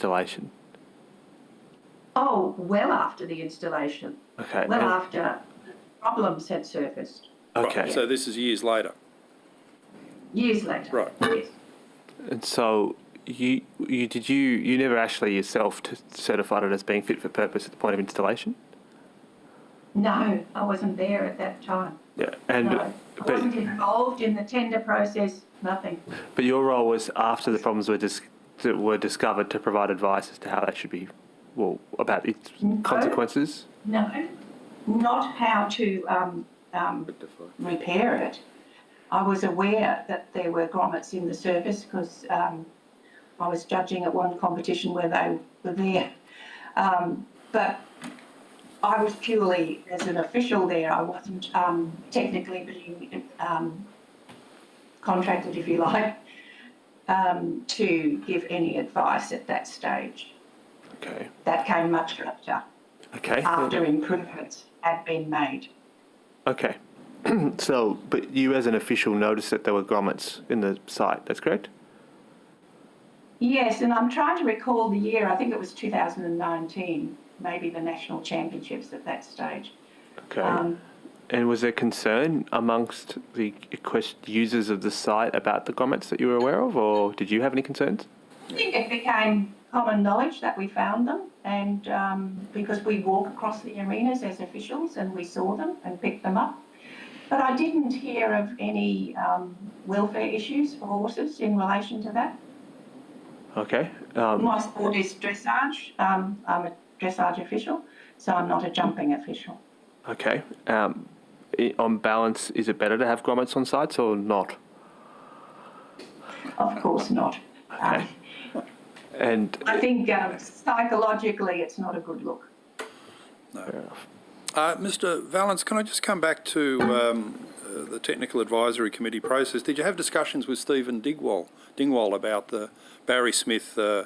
installation? Oh, well after the installation, Okay. well and- after problems had surfaced, Okay. Right, So this is years later. years later. Right. Yes. And so you you did you you never actually yourself t- certified it as being fit for purpose at the point of installation? No, I wasn't there at that time. Yeah. And No, Um, I wasn't but involved in the tender process, nothing. but your role was after the problems were dis- that were discovered to provide advice as to how that should be well about its No. consequences. No, not how to um, um, repair it. I was aware that there were grommets in the service because um, I was judging at one competition where they were there. Um, but I was purely as an official there. I wasn't um, technically being um, contracted, if you like, um, to give any advice at that stage. Okay. That came much later Okay. after improvements had been made. Okay. so but you as an official noticed that there were grommets in the site. That's correct. Yes, and I'm trying to recall the year. I think it was 2019, maybe the national championships at that stage. Okay. Um, And was there concern amongst the quest- users of the site about the grommets that you were aware of, or did you have any concerns? I think it became common knowledge that we found them, and um, because we walk across the arenas as officials and we saw them and picked them up. But I didn't hear of any um, welfare issues for horses in relation to that. Okay. Um, My sport is dressage. Um, I'm a dressage official, so I'm not a jumping official. okay. Um, i- on balance, is it better to have grommets on sites or not? Of course not. Um, And I think um, psychologically, it's not a good look. Uh, Mr. Valence, can I just come back to um, uh, the Technical Advisory Committee process? Did you have discussions with Stephen Digwall, Dingwall about the Barry Smith uh,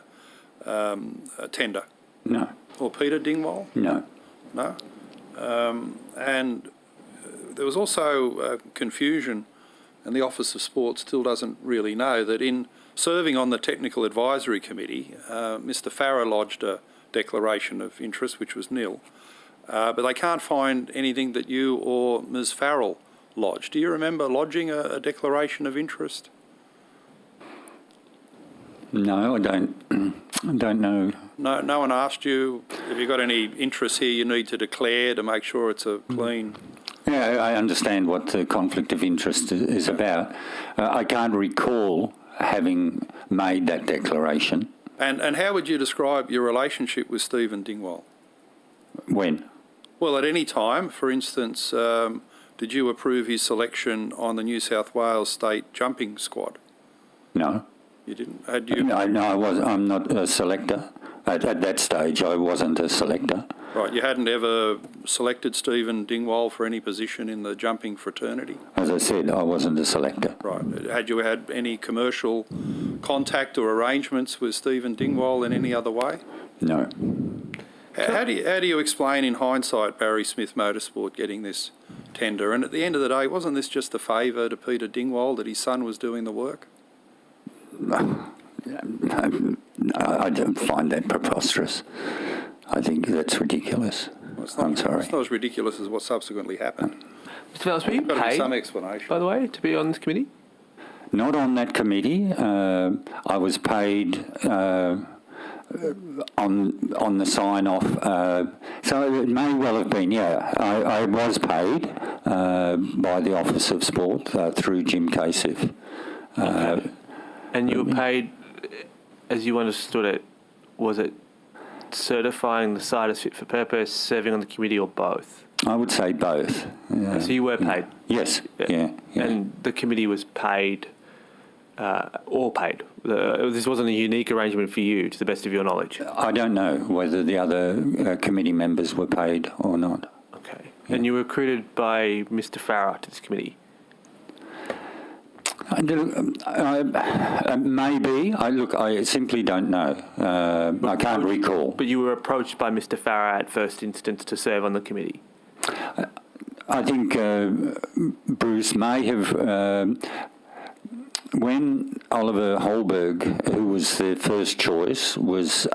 um, uh, tender? No, Or Peter Dingwall? no. No? Um, and uh, there was also uh, confusion, and the Office of Sport still doesn't really know that in serving on the Technical Advisory Committee, uh, Mr. Farrow lodged a declaration of interest, which was nil. Uh, but they can't find anything that you or Ms. Farrell lodged. Do you remember lodging a, a declaration of interest? No, I don't. I don't know. No, no one asked you. Have you got any interests here you need to declare to make sure it's a clean? Yeah, I I understand what the conflict of interest i- is about. Uh, I can't recall having made that declaration. And, and how would you describe your relationship with Stephen Dingwall? When? Well, at any time, for instance, um, did you approve his selection on the New South Wales state jumping squad? No. You didn't. Had you? No, no, I was. I'm not a selector. At, at that stage, I wasn't a selector. Right, you hadn't ever selected Stephen Dingwall for any position in the jumping fraternity. As I said, I wasn't a selector. Right. Had you had any commercial contact or arrangements with Stephen Dingwall in any other way? No. How, how do you how do you explain in hindsight Barry Smith Motorsport getting this tender? And at the end of the day, wasn't this just a favour to Peter Dingwall that his son was doing the work? I, I don't find that preposterous. I think that's ridiculous. It's not- I'm sorry. It's not as ridiculous as what subsequently happened. Mr. Valls, were you Got to be paid, some by explanation. the way, to be on this committee? Not on that committee. Uh, I was paid uh, on on the sign off. Uh, so it may well have been. Yeah, I, I was paid uh, by the Office of Sport uh, through Jim Casey. And you were paid, as you understood it, was it certifying the site as fit for purpose, serving on the committee, or both? I would say both. Yeah. So you were paid. Yes. Yeah. yeah. And the committee was paid, uh, all paid. The, this wasn't a unique arrangement for you, to the best of your knowledge. I don't know whether the other uh, committee members were paid or not. Okay. And you were recruited by Mr. Farrar to this committee. I do- um, I- uh, Maybe. I look. I simply don't know. Uh, I can't recall. But you were approached by Mr. Farrar at first instance to serve on the committee. I think uh, Bruce may have um when Oliver Holberg, who was their first choice, was